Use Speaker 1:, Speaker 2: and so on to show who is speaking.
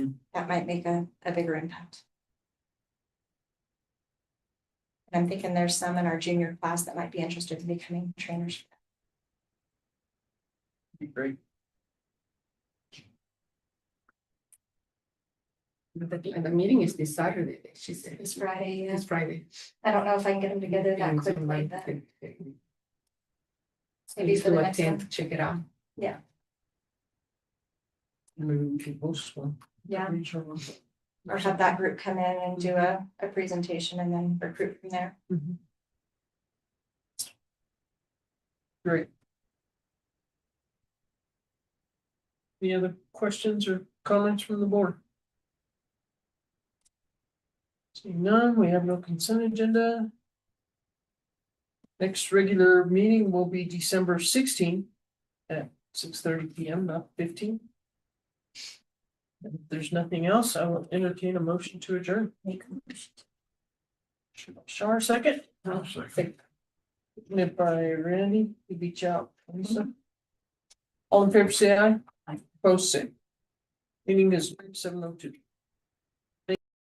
Speaker 1: that might make a, a bigger impact. And I'm thinking there's some in our junior class that might be interested in becoming trainers.
Speaker 2: Great.
Speaker 3: But the, and the meeting is this Saturday, she said,
Speaker 1: It's Friday,
Speaker 3: it's Friday.
Speaker 1: I don't know if I can get them together that
Speaker 3: And somebody
Speaker 1: quickly, but
Speaker 3: could- could-
Speaker 1: maybe for the
Speaker 3: could
Speaker 1: next
Speaker 3: attend
Speaker 1: one.
Speaker 3: to Check it out.
Speaker 1: Yeah.
Speaker 3: Maybe we could post one.
Speaker 1: Yeah,
Speaker 3: I'm sure one.
Speaker 1: or have that group come in and do a, a presentation and then recruit from there.
Speaker 3: Mhm.
Speaker 2: Great. Any other questions or comments from the board? Seeing none, we have no consent agenda. Next regular meeting will be December sixteenth at six thirty P M, not fifteen. And If there's nothing else, I will entertain a motion to adjourn. Shar, second?
Speaker 3: I'll
Speaker 2: second. Made by Randy, you beat out Lisa. All in favor, say aye.
Speaker 3: Aye.
Speaker 2: Post same. Meeting is seven oh two.